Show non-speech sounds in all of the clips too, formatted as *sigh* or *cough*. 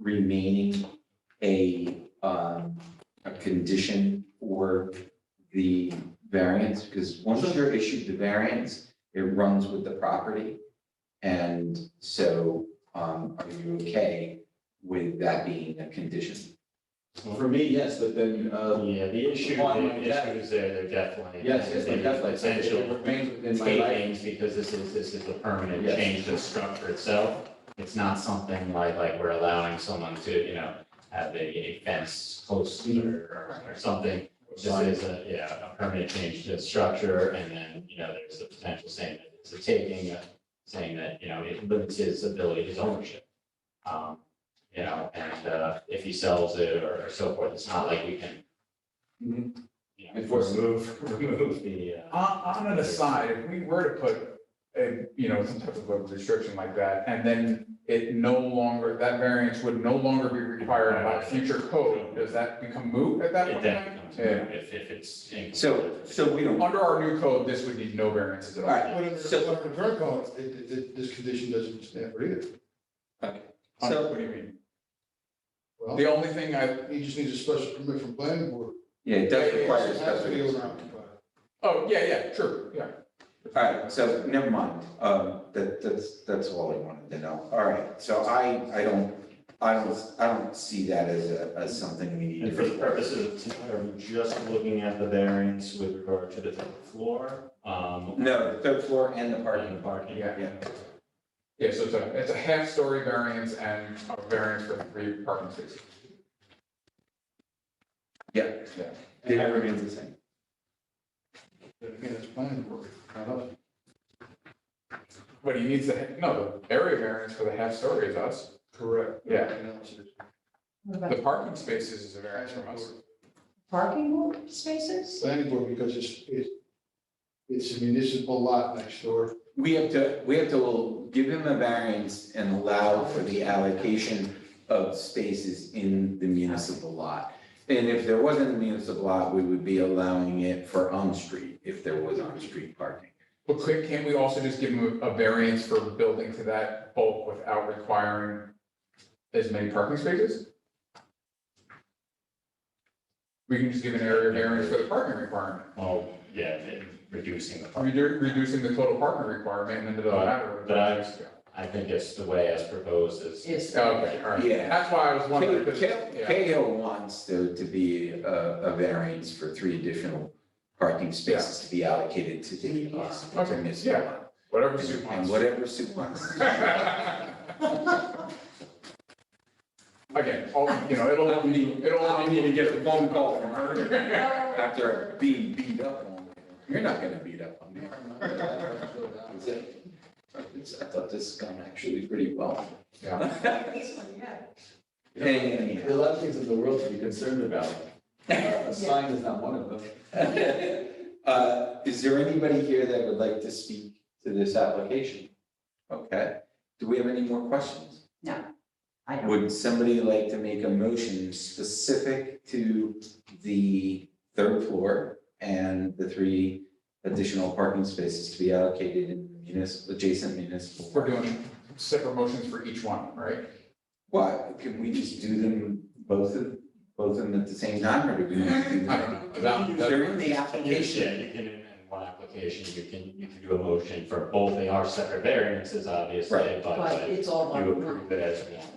remaining a, um, a condition for the variance, because once you're issued the variance, it runs with the property. And so, um, are you okay with that being a condition? For me, yes, but then, uh, Yeah, the issue, Well, I'm the like that. issues there, they're definitely. yes, yes, but definitely, so if it Essential remains within my life. takings, because this is, this is a permanent Yes. change to the structure itself. It's not something like, like we're allowing someone to, you know, have a- a fence close Mm-hmm. to or, or something. This is a, yeah, a permanent change to the structure, and then, you know, there's the potential saying that it's a taking, uh, saying that, you know, it limits his ability, his ownership. Um, You know, and, uh, if he sells it or or so forth, it's not like we can Mhm. you Of know, course. remove, *laughs* remove the, uh, On, on an aside, if we were to put a, you know, some type of a restriction like that, and then it no longer, that variance would no longer be required by future code, does that become moot at that it point? then in becomes, time? if, if it's. So, so we don't. Yeah, under our new code, this would need no variances at all. Alright. Whatever, So- whatever the current code, it, it, this condition doesn't stand for either. So- What do you mean? Well, The only thing I, he just needs a special permit from planning board. Yeah, it does Yeah, yeah, require a It has to be special. owner-occupied. oh, yeah, yeah, true, yeah. All right, so never mind. Um, that, that's, that's all I wanted to know. All right, so I, I don't, I don't, I don't see that as a, as something we need to. And for the require. purposes of, tonight, are we just looking at the variance with regard to the third floor? Um, No, the third floor and the parking. and Parking. Yeah. Yeah. Yeah, so it's a, it's a half-story variance and a variance for three parking spaces. Yeah. Yeah. It remains the same. But Again, it's planning board, not us. But he needs the, no, the area variance for the half-story is us. Correct. Yeah. Everything else is What The about parking spaces is a variance from us. parking lot spaces? Planning board, because it's, it's, it's a municipal lot next door. We have to, we have to give him a variance and allow for the allocation of spaces in the municipal lot. And if there wasn't a municipal lot, we would be allowing it for on-street, if there was on-street parking. But could, can't we also just give them a a variance for building to that bulk without requiring as many parking spaces? We can just give an area variance for the parking requirement, Well, yeah, it- reducing the parking. redu- reducing the total parking requirement and then the. But I- I think it's the way as proposed is. Is Okay, all right. Yeah. That's why I was wondering. 'cause- Ca- Ca- yeah. Cahill wants there to be a, a variance for three additional parking spaces to be allocated to the, uh, Okay, to municipal yeah. lot. Whatever Sue And and wants. whatever Sue *laughs* wants. Again, all, oh, you know, it'll, I mean, it'll. I mean, you get a phone call from her. Oh, After being beat up on, you're not gonna beat up on me. It's a- it's- I thought this has gone actually pretty *laughs* well. Yeah. This one, yeah. And- There are a lot of things in the world to be concerned about. *laughs* A sign is not one of them. Uh, is there anybody here that would like to speak to this application? Okay, do we have any more questions? I don't. Would somebody like to make a motion specific to the third floor and the three additional parking spaces to be allocated in municipal, adjacent municipal? We're doing separate motions for each one, right? What, can we just do them both of, both of them at the same time, or do we need to do I them? don't know. That- that- They're in the Yeah, application. you can, in in one application, you can, you can do a motion for both, they are separate variances, obviously, Right. but But but it's all one. you approve it as one.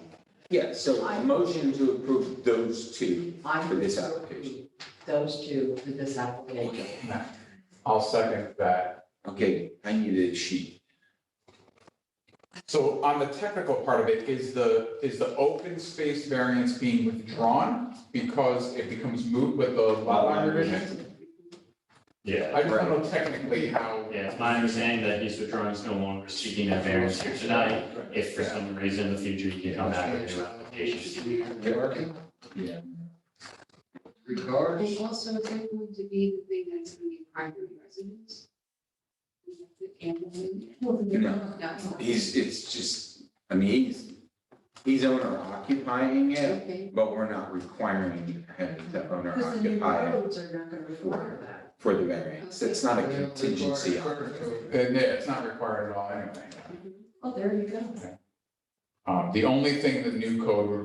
Yeah, so a motion to approve those two I for this would application. approve Those two for this application. Okay, I'll second that. okay, I need a sheet. So on the technical part of it, is the, is the open space variance being withdrawn because it becomes moot with the lot line revision? Yeah, I just don't know technically how. yeah, it's my understanding that he's withdrawing, is no longer seeking that variance here tonight. If for some reason in the future you can come back with new applications. Parking, Yeah. three cars. And also, is that going to be the thing that's going to be primary residence? Is that the family? You know, No. He's, it's just, I mean, he's, he's owner occupying it, Okay. but we're not requiring him to owner Because the new occupy it roads are not going to require that. for the variance. It's not a contingency. on it. Then, yeah, it's not required at all anyway. Oh, there you go. Um, the only thing the new code would